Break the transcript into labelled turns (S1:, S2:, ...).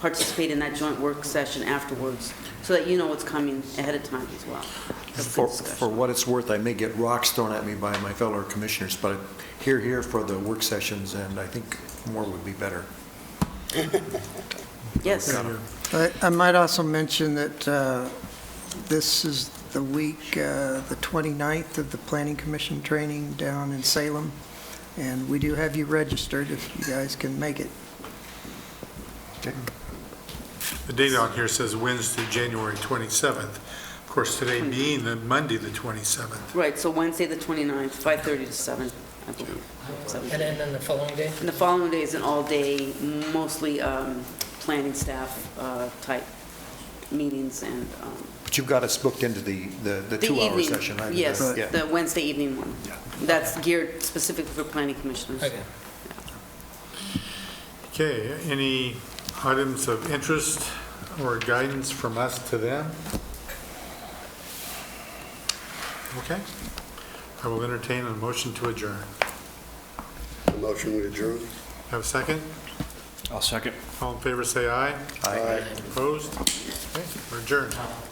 S1: participate in that joint work session afterwards, so that you know what's coming ahead of time as well. That's the
S2: For, for
S1: discussion.
S2: what it's worth, I may get rocks thrown at me by my fellow commissioners, but here, here for the work sessions, and I think more would be better.
S1: Yes,
S3: I I might also mention that uh, this is the week, uh, the 29th of the Planning Commission training down in Salem, and we do have you registered if you guys can make it.
S4: The date on here says Wednesday, January 27th. Of course, today being the Monday, the 27th.
S1: right, so Wednesday, the 29th, 5:30 to 7, I believe. Seven.
S5: And then on the following day?
S1: And the following day is an all-day, mostly um, planning staff uh, type meetings and um,
S2: But you've got us booked into the, the the
S1: the
S2: two-hour
S1: evening.
S2: session. I-
S1: Yes,
S2: yeah.
S1: the Wednesday evening one.
S2: Yeah.
S1: That's geared specifically for planning commissioners.
S5: Okay.
S4: Okay, any items of interest or guidance from us to them? Okay. I will entertain a motion to adjourn.
S6: Motion we adjourn.
S4: Have a second?
S7: I'll second.
S4: All in favor, say aye.
S2: Aye.
S4: Opposed? Okay, We're adjourned.